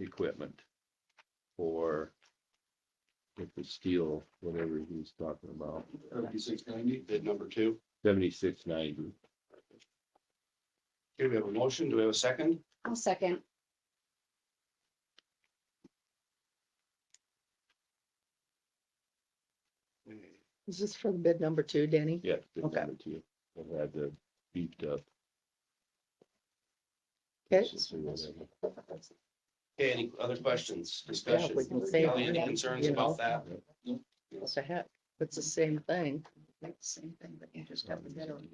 equipment for with the steel, whatever he's talking about, Seventy-six ninety, bid number two. seventy-six ninety. Okay, we have a motion. Do we have a second? I'll second. Is this for the bid number two, Danny? Yeah. bid Okay. number two. We'll have the beefed up. Okay. Okay, any other questions, Yeah, we discussions? can say Kelly, any that, concerns you about know. that? What the heck? It's the same thing. Like the same thing, but you just have to get on.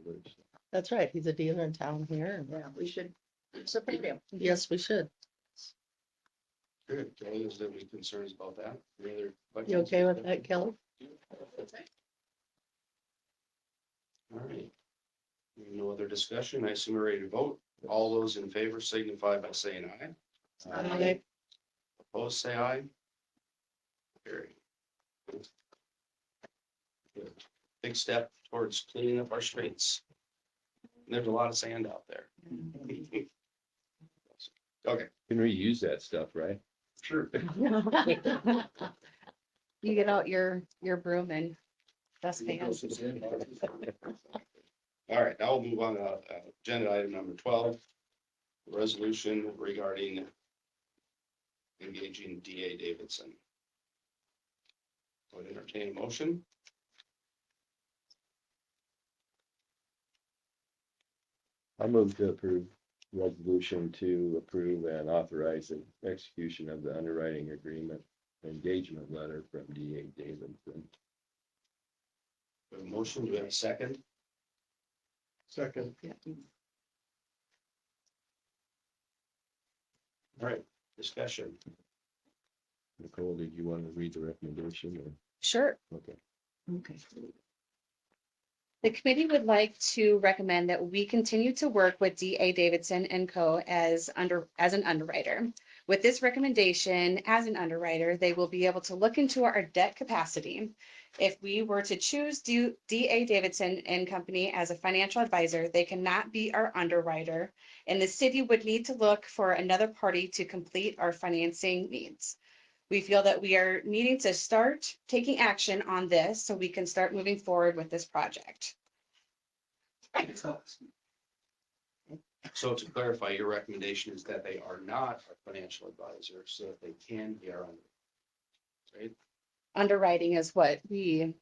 That's right. He's a dealer in town here. Yeah, we should. It's a premium. Yes, we should. Good. Kelly, is there any concerns about that? Any other You questions? okay with that, Kelly? All right. No other discussion. I assume we're ready to vote. All those in favor signify by saying aye. Aye. Opposed, say aye. Carry. Big step towards cleaning up our streets. There's a lot of sand out there. Can reuse that stuff, right? Sure. You get out your, your broom and dustpan. All right, now we'll move on to uh, agenda item number twelve. Resolution regarding engaging DA Davidson. Would entertain a motion. I move to approve resolution to approve and authorize the execution of the underwriting agreement engagement letter from D A Davidson. We have a motion, do we have a second? Second, All right, discussion. Nicole, did you want to read the recommendation or? Sure. Okay. Okay. The committee would like to recommend that we continue to work with DA Davidson and Co. as under, as an underwriter. With this recommendation, as an underwriter, they will be able to look into our debt capacity. If we were to choose Du- DA Davidson and Company as a financial advisor, they cannot be our underwriter, and the city would need to look for another party to complete our financing needs. We feel that we are needing to start taking action on this so we can start moving forward with this project. So to clarify, your recommendation is that they are not a financial advisor, so that they can be our own. Right? Underwriting is what we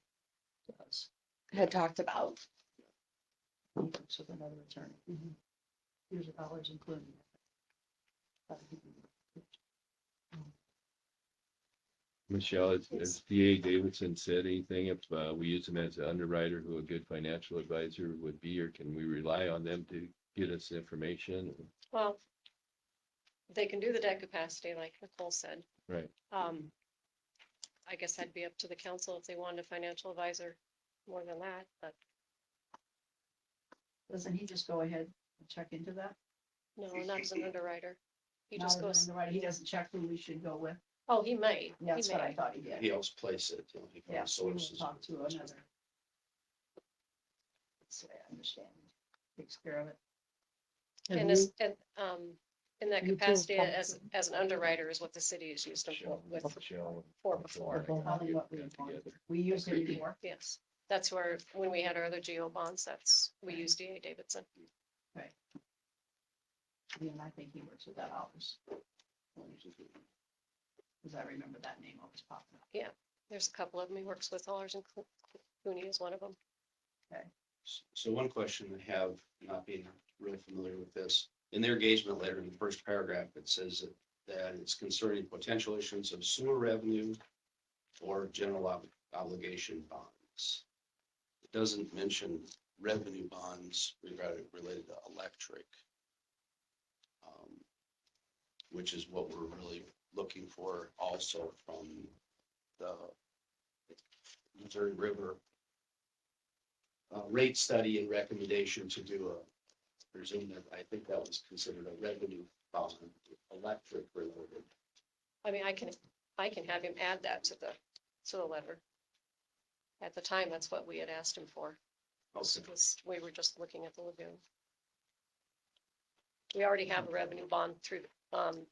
had talked about. With another attorney. Mhm. Here's a dollars included. Michelle, has- has D A Davidson said anything if uh, we use them as an underwriter who a good financial advisor would be, or can we rely on them to get us information? Well, they can do the debt capacity like Nicole said. Right. Um, I guess that'd be up to the council if they wanted a financial advisor more than that, but Doesn't he just go ahead and check into that? no, not as an underwriter. He just Now, goes, remember, Right, he doesn't check who we should go with. oh, he may, he That's what I may. thought he did. He helps place it. you know, he Yeah, finds we will sources. talk to another. That's the way I understand. it. Takes care of it. And as, and, um, in that You feel capacity as, comfortable? as an underwriter is what the city is used to for- with, Michelle. for before. Probably what we want. We use it anymore. Yes, that's where, when we had our other GO bonds, that's, we used DA Davidson. I mean, I think he works with that office. Because I remember that name always popping up. There's a couple of them he works with, Allers and Clo- Cooney is one of them. So one question I have, not being really familiar with this, in their engagement letter in the first paragraph, it says that that it's concerning potential issuance of sewer revenue or general ob- obligation bonds. It doesn't mention revenue bonds regarding related to electric. um, Which is what we're really looking for also from the Missouri River uh, rate study and recommendation to do a, presume that, I think that was considered a revenue bond, electric related. I mean, I can, I can have him add that to the, to the letter. At the time, that's what we had asked him for. Also, was We were just looking at the lagoon. We already have a revenue bond through, um,